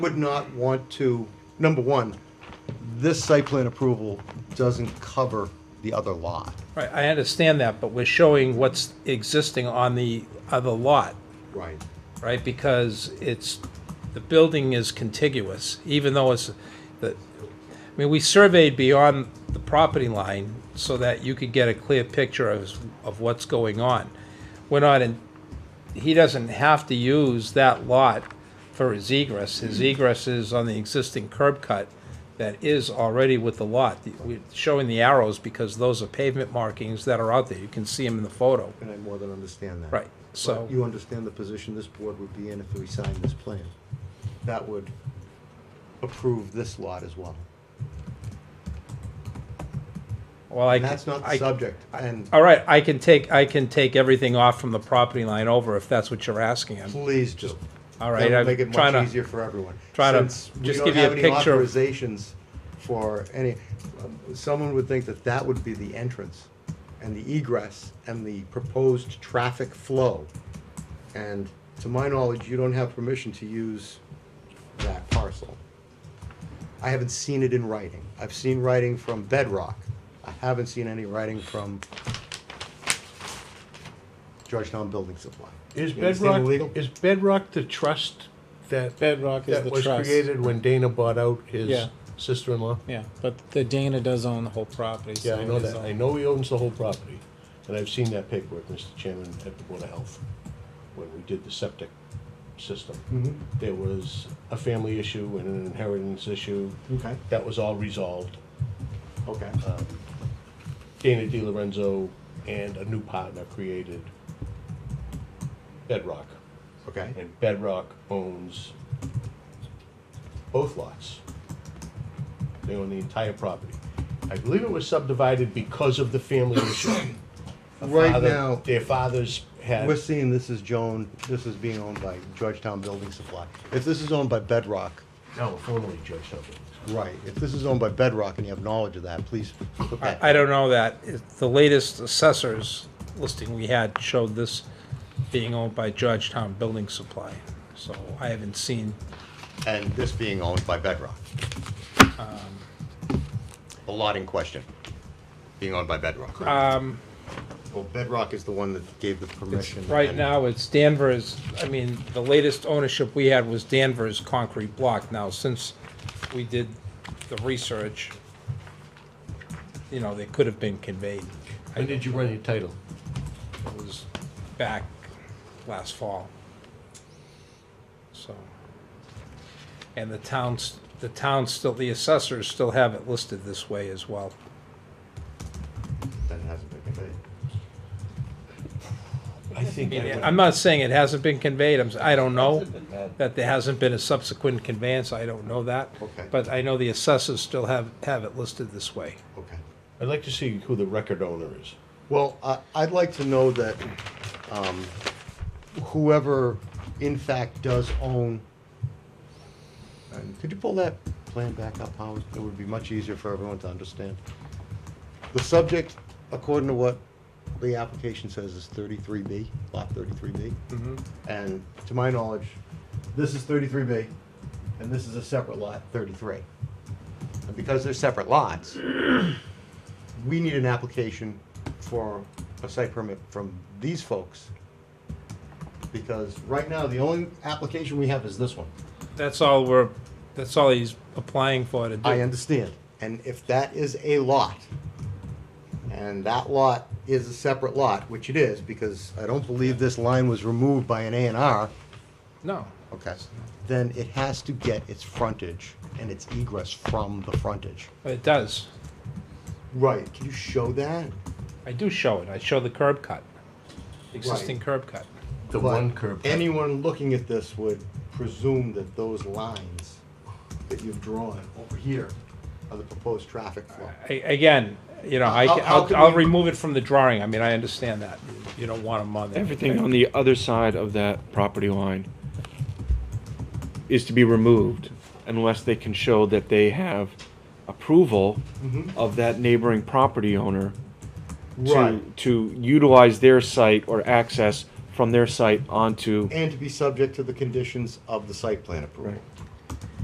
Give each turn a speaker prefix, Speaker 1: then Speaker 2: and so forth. Speaker 1: would not want to, number one, this site plan approval doesn't cover the other lot.
Speaker 2: Right, I understand that, but we're showing what's existing on the other lot,
Speaker 1: Right.
Speaker 2: right? Because it's, the building is contiguous, even though it's, the, I mean, we surveyed beyond the property line so that you could get a clear picture of, of what's going on. We're not in, he doesn't have to use that lot for his egress. His
Speaker 1: Hmm.
Speaker 2: egress is on the existing curb cut that is already with the lot. We're showing the arrows because those are pavement markings that are out there. You can see them in the photo.
Speaker 1: And I more than understand that.
Speaker 2: Right, so-
Speaker 1: You understand the position this board would be in if we signed this plan. That would approve this lot as well.
Speaker 2: Well, I.
Speaker 1: And that's not the
Speaker 2: I-
Speaker 1: subject, and
Speaker 2: All right, I can take, I can take everything off from the property line over if that's what you're asking. I'm-
Speaker 1: please do.
Speaker 2: All right,
Speaker 1: That would
Speaker 2: I'm
Speaker 1: make it
Speaker 2: trying to-
Speaker 1: much easier for everyone.
Speaker 2: trying to
Speaker 1: Since we
Speaker 2: just
Speaker 1: don't
Speaker 2: give you a
Speaker 1: have any
Speaker 2: picture.
Speaker 1: Authorizations for any, um, someone would think that that would be the entrance and the egress and the proposed traffic flow. And to my knowledge, you don't have permission to use that parcel. I haven't seen it in writing. I've seen writing from Bedrock. I haven't seen any writing from Georgetown Building Supply.
Speaker 3: Is
Speaker 1: You understand
Speaker 3: Bedrock,
Speaker 1: illegal?
Speaker 3: is Bedrock the trust that?
Speaker 4: Bedrock is
Speaker 3: that
Speaker 4: the
Speaker 3: was
Speaker 4: trust.
Speaker 3: created when Dana bought out his
Speaker 4: Yeah.
Speaker 3: sister-in-law?
Speaker 4: Yeah, but the Dana does own the whole property.
Speaker 3: Yeah,
Speaker 4: so
Speaker 3: I know
Speaker 4: it is
Speaker 3: that.
Speaker 4: all-
Speaker 3: I know he owns the whole property. And I've seen that paperwork, Mr. Chairman, at the Board of Health, when we did the septic system.
Speaker 4: Mm.
Speaker 2: Mm-hmm.
Speaker 3: There was a family issue and an inheritance issue.
Speaker 1: Okay.
Speaker 3: That was all resolved.
Speaker 1: Okay.
Speaker 3: Uh, Dana Di Lorenzo and a new partner created Bedrock.
Speaker 1: Okay.
Speaker 3: And Bedrock owns both lots. They own the entire property. I believe it was subdivided because of the family issue. The
Speaker 1: Right
Speaker 3: father-
Speaker 1: now-
Speaker 3: Their fathers had,
Speaker 1: We're seeing this is Joan, this is being owned by Georgetown Building Supply. If this is owned by Bedrock,
Speaker 3: no, formerly Georgetown. Buildings.
Speaker 1: right, if this is owned by Bedrock and you have knowledge of that, please put that.
Speaker 2: I, I don't know that. It- The latest assessors listing we had showed this being owned by Georgetown Building Supply. So I haven't seen,
Speaker 1: And this being owned by Bedrock.
Speaker 2: Um,
Speaker 1: The lot in question, being owned by Bedrock.
Speaker 2: um,
Speaker 1: Well, Bedrock is the one that gave the permission.
Speaker 2: right
Speaker 1: and-
Speaker 2: now it's Danvers, I mean, the latest ownership we had was Danvers Concrete Block. Now, since we did the research, you know, they could have been conveyed.
Speaker 3: When did you run your title?
Speaker 2: It was back last fall. So, and the towns, the town still, the assessors still have it listed this way as well.
Speaker 1: That hasn't been conveyed.
Speaker 3: I
Speaker 2: I
Speaker 3: think.
Speaker 2: mean,
Speaker 3: I
Speaker 2: I'm
Speaker 3: went-
Speaker 2: not saying it hasn't been conveyed, I'm, s- I don't know, that there hasn't been a subsequent conveyance, I don't know that.
Speaker 1: Okay.
Speaker 2: But I know the assessors still have, have it listed this way.
Speaker 1: Okay.
Speaker 3: I'd like to see who the record owner is.
Speaker 1: Well, I, I'd like to know that um, whoever in fact does own, and could you pull that plan back up, Howard? It would be much easier for everyone to understand. The subject, according to what the application says, is thirty-three B, lot thirty-three B. And to my knowledge, this is thirty-three B, and this is a separate lot, thirty-three. And because they're separate lots, we need an application for a site permit from these folks. Because right now, the only application we have is this one.
Speaker 2: That's all we're, that's all he's applying for to do.
Speaker 1: I understand. And if that is a lot, and that lot is a separate lot, which it is, because I don't believe this line was removed by an A and R,
Speaker 2: No,
Speaker 1: okay, then it has to get its frontage and its egress from the frontage.
Speaker 2: it does,
Speaker 1: Right, can you show that?
Speaker 2: I do show it, I show the curb cut, existing curb cut.
Speaker 3: The
Speaker 1: But
Speaker 3: one curb. cut.
Speaker 1: Anyone looking at this would presume that those lines that you've drawn over here are the proposed traffic flow.
Speaker 2: I- Again, you know, I,
Speaker 1: How-
Speaker 2: ca-
Speaker 1: how
Speaker 2: I'll,
Speaker 1: can
Speaker 2: I'll
Speaker 1: we-
Speaker 2: remove it from the drawing, I mean, I understand that, you don't want them on there.
Speaker 5: Everything on the other side of that property line is to be removed unless they can show that they have approval of that neighboring property owner to,
Speaker 1: Right.
Speaker 5: to utilize their site or access from their site onto,
Speaker 1: And to be subject to the conditions of the site plan approval.
Speaker 5: Right.